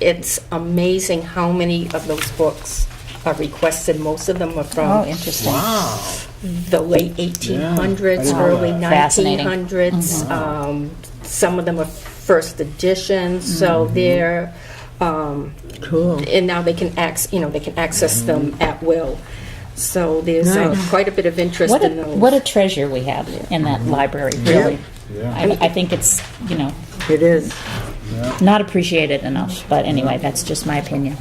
it's amazing how many of those books are requested. Most of them are Oh, from interesting. Wow. the late I 1800s, didn't know early that. Fascinating. Mm-hmm. 1900s. Um, Some of them are first editions, so Mm-hmm. they're, um, Cool. and now they can access, you know, they can access them Mm-hmm. at will. So there's uh, Nice. quite a bit of interest What a, in those. what a treasure we have in that library, really. Mm-hmm. Yeah. I, I think it's, you know, It is. not appreciated enough, but anyway, that's just my opinion.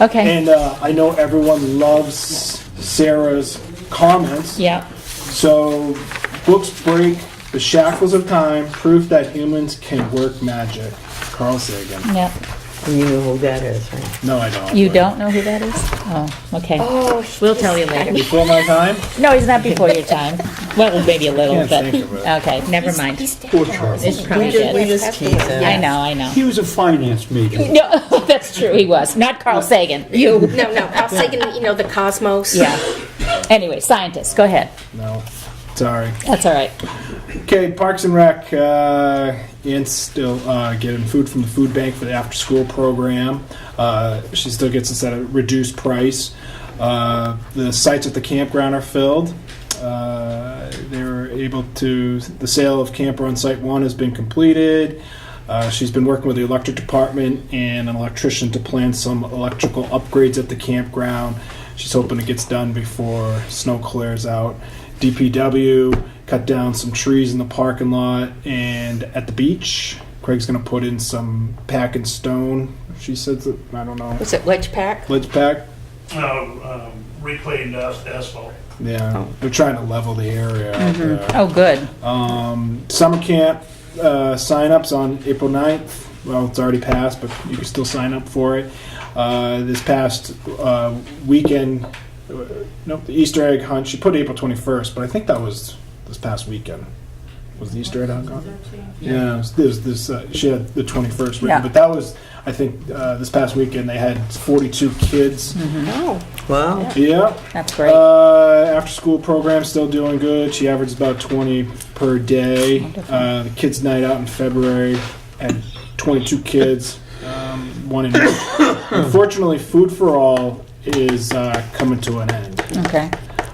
Okay, And uh, I know everyone loves Sarah's comments. yeah, So, books break the shackles of time, proof that humans can work magic. Carl Sagan. yeah. You know who that is, right? No, I don't. You but- don't know who that is? Oh, okay. Oh, We'll tell you later. Before my time? No, he's not before your time. Well, maybe a little, Can't but, think of it. okay, never mind. Poor Charles. It's probably just- we good. just tease it. I know, I know. He was a finance major. No, that's true, he was. Not Carl Sagan, you. No, no, I was thinking, you know, the cosmos. Yeah. Anyway, scientists, go ahead. No. Sorry. That's all right. Okay, Parks and Rec, uh, and still uh, getting food from the food bank for the after school program. Uh, she still gets this at a reduced price. Uh, the sites at the campground are filled. Uh, they were able to, the sale of camper on site one has been completed. Uh, she's been working with the electric department and an electrician to plan some electrical upgrades at the campground. She's hoping it gets done before snow clears out. DPW cut down some trees in the parking lot and at the beach. Craig's going to put in some pack and stone. She says that I don't know Was it Ledge Pack? ledge pack. uh, um, reclaimed as- asphalt. Yeah, they're trying to level the area. Uh, out there. Oh, good. Um, summer camp uh, sign-ups on April 9th. Well, it's already passed, but you can still sign up for it. Uh, this past uh, weekend, uh, nope, the Easter egg hunt. She put April 21st, but I think that was this past weekend. Was the Easter egg hunt gone? Yeah, it was this, this uh, she had the 21st written, Yeah. but that was I think uh, this past weekend they had 42 kids. No. Wow. Yeah. That's great. Uh, after school program still doing good. She averages about 20 per day. Uh, the kids' night out in February had 22 kids. Um, one in Unfortunately, Food for All is uh, coming to an end. Okay,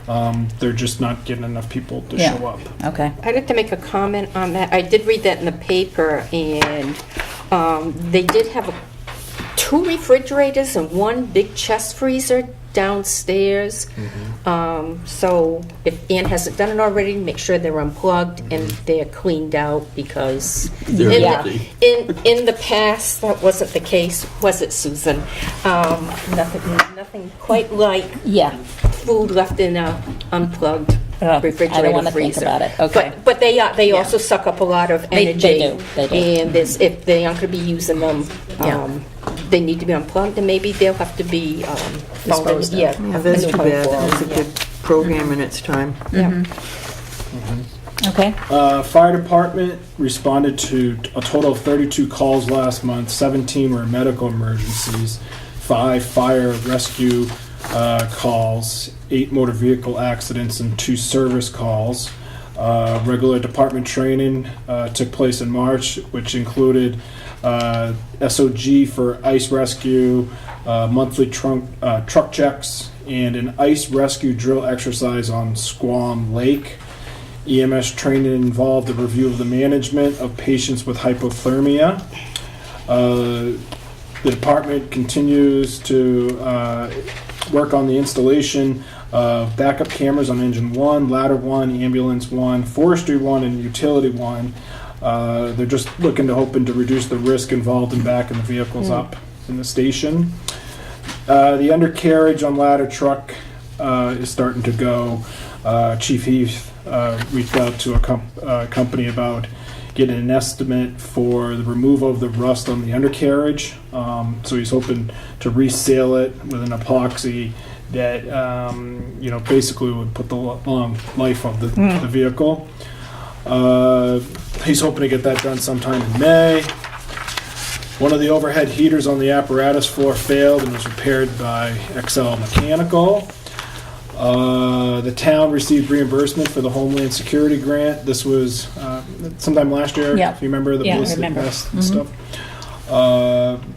Um, they're just not getting enough people to Yeah. show up. okay. I'd like to make a comment on that. I did read that in the paper, and um, they did have a- two refrigerators and one big chest freezer downstairs. Mm-hmm. Um, So if Ann hasn't done it already, make sure they're unplugged and they're cleaned out, because Mm-hmm. They're in the- empty. in, in the past, that wasn't the case, was it, Susan? Um, Nothing, nothing quite like Yeah, food left in a unplugged Ugh, refrigerator Oh, I don't wanna think freezer. about it. Okay. But, but they, are- they also suck up a lot of They- they energy. do. They do. And this, if they aren't going to be using them, Yeah. um, they need to be unplugged, and maybe they'll have to be um, folded. Disposed of. Yeah, Yeah, that's too disposed bad. of, That was a yeah. good program in its time. okay. Uh, fire department responded to a total of 32 calls last month. 17 were medical emergencies, five fire rescue uh, calls, eight motor vehicle accidents, and two service calls. Uh, regular department training uh, took place in March, which included uh, SOG for ice rescue, uh, monthly trunk, uh, truck checks, and an ice rescue drill exercise on Squam Lake. EMS E training involved a review of the management of patients with hypothermia. Uh, The department continues to uh, work on the installation of backup cameras on engine one, ladder one, ambulance one, forestry one, and utility one. Uh, They're just looking to hoping to reduce the risk involved in backing the vehicles up in the station. Uh, the undercarriage on ladder truck uh, is starting to go. Uh, Chief Heath uh, reached out to a com- uh, company about getting an estimate for the removal of the rust on the undercarriage. Um, so he's hoping to reseal it with an epoxy that um, you know basically would put the lo- long life of the, the vehicle. Uh, he's hoping to get that done sometime in May. One of the overhead heaters on the apparatus floor failed and was repaired by XL Mechanical. Uh, The town received reimbursement for the Homeland Security Grant. This was uh, sometime last year, Yeah. if you remember, the Yeah, I Mm-hmm. ballistic remember. vest and stuff. Uh,